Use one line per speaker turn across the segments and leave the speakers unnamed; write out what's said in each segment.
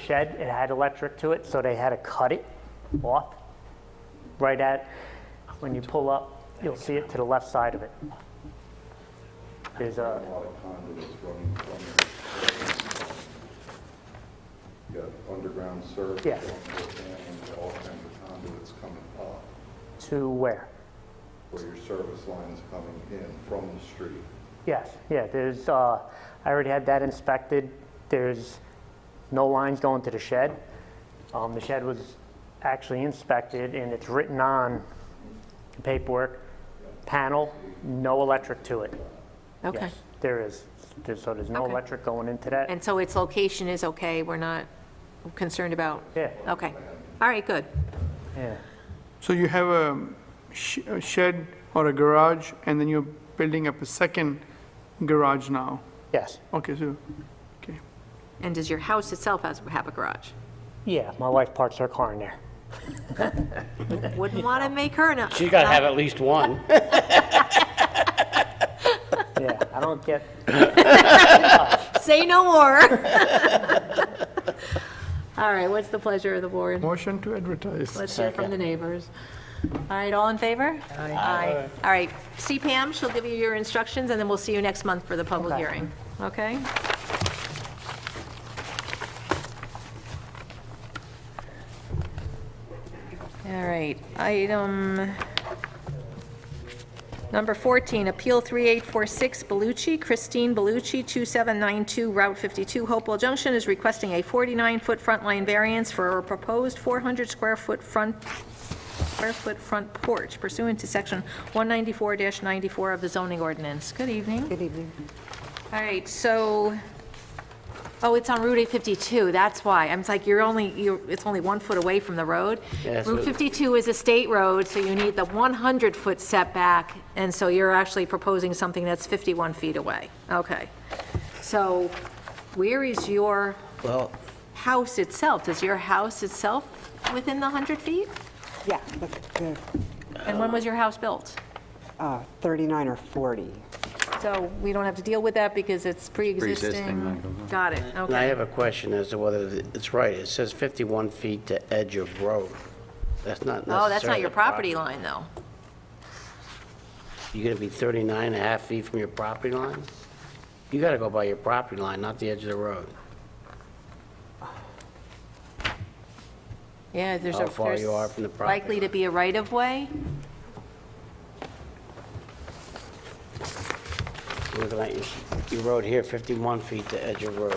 shed, it had electric to it, so they had to cut it off right at, when you pull up, you'll see it to the left side of it. There's a,
lot of conduits running from it. You got underground service.
Yeah.
And all kinds of conduits coming up
to where?
where your service line is coming in from the street.
Yes, yeah, there's, uh, I already had that inspected. There's no lines going to the shed. Um, The shed was actually inspected, and it's written on the paperwork, panel, no electric to it.
Okay.
Yes, There is, There's- so there's no
Okay.
electric going into that.
And so its location is okay, we're not concerned about?
Yeah,
Okay, all right, good.
yeah,
So you have a sh- a shed or a garage, and then you're building up a second garage now?
yes.
Okay, so, okay.
And does your house itself has- have a garage?
Yeah, my wife parks her car in there.
Wouldn't want to make her not,
She's got to have at least one.
Yeah, I don't get,
say no more. All right, what's the pleasure of the board?
Motion to advertise.
Let's hear from the neighbors. All right, all in favor? Aye. All right, see Pam, she'll give you your instructions, and then we'll see you next month for the public
Okay.
hearing, okay? All right, item number 14, Appeal 3846 Bellucci, Christine Bellucci, 2792 Route 52, Hopewell Junction, is requesting a 49-foot front line variance for a proposed 400-square-foot front square-foot front porch pursuant to Section 194-94 of the zoning ordinance. Good evening. Good evening. All right, so, oh, it's on Route 852, that's why. I'm like, you're only, you're, it's only one foot away from the road.
Yeah, that's
Route
what-
52 is a state road, so you need the 100-foot setback, and so you're actually proposing something that's 51 feet away. Okay. So where is your
Well,
house itself? Is your house itself within the 100 feet?
Yeah, that's good.
And when was your house built?
Uh, 39 or 40.
So we don't have to deal with that because it's pre-existing. Got it,
and I
okay.
have a question as to whether th- it's right. It says 51 feet to edge of road. That's not necessarily.
Oh, that's not your property line, though.
You're going to be 39 and a half feet from your property line? You got to go by your property line, not the edge of the road.
Yeah, there's a...
How far you
there's
are from the property
Likely to
line.
be a right-of-way?
You're Looking at your, your road here, 51 feet to edge of road.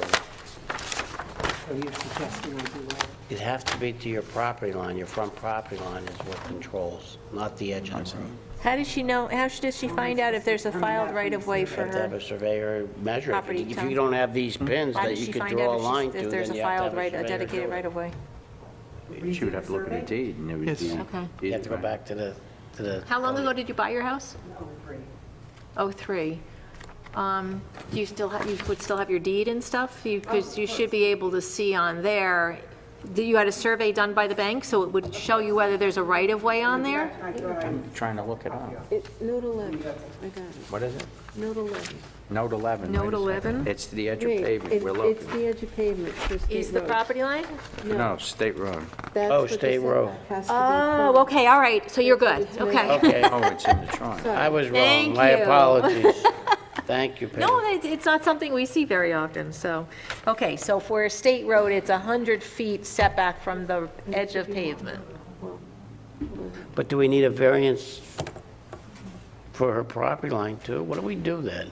It'd have to be to your property line. Your front property line is what controls, not the edge of the road.
How does she know, how sh- does she find out if there's a filed right-of-way for
have to have a
her?
surveyor measure it.
Property
If
tax.
you don't have these pins
How
that
does
you
she
could
find
draw a
out
line
if she's-
to,
if
then
there's a
you have
filed
to have
right,
a
a
surveyor do
dedicated
it.
right-of-way?
She would have to look at a deed and it would
Yes.
be.
Okay.
You have to go back to the, to the.
How long ago did you buy your house? Oh three. Um, do you still, have? you would still have your deed and stuff? Because you should be able to see on there, Did- you had a survey done by the bank, so it would show you whether there's a right-of-way on there?
Trying to look it up.
Note 11, I got it,
What is it?
note 11.
Note 11.
Note
wait a second.
11?
It's the edge of
Wait,
pavement,
it-
we're
It's
looking.
the edge of pavement for state road.
Is the property line?
No, state road.
That's
Oh,
what the
state road.
setback has to be
Oh,
from.
okay, all right, so you're good, okay.
Okay,
Oh, it's in the drawing.
I was wrong.
Thank
My
you.
apologies. Thank you,
No,
Pam.
it- it's not something we see very often, so, okay, so for a state road, it's 100 feet setback from the edge of pavement.
But do we need a variance for her property line too? What do we do then?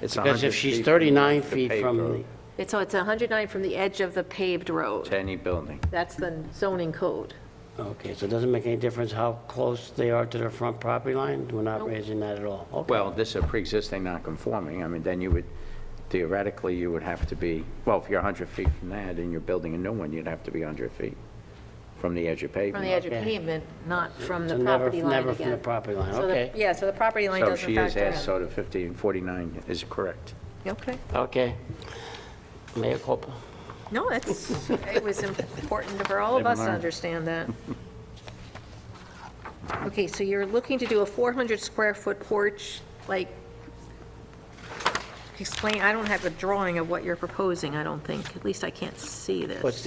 It's
Because
100
if she's
feet
39
the
feet
paved
from, the
road
It's- So it's 109 from the edge of the paved road.
To any building.
That's the zoning code.
okay, so it doesn't make any difference how close they are to their front property line? We're not raising that at all? Okay.
Well, this is a pre-existing non-conforming, I mean, then you would, theoretically, you would have to be, well, if you're 100 feet from that and you're building a new one, you'd have to be 100 feet from the edge of
From
pavement.
the edge of
Okay.
pavement, not from
So
the
never-
property line
Never from the
again.
property line,
So the-
okay.
Yeah, so the property line
So
doesn't
she is
factor
asked,
in.
so the 15, 49 is correct.
Okay.
Okay. Mayor culpa.
No, that's, it was important for all of
Never
us to
mind.
understand that. Okay, so you're looking to do a 400-square-foot porch, like, explain, I don't have a drawing of what you're proposing, I don't think. At least I can't see this.
What's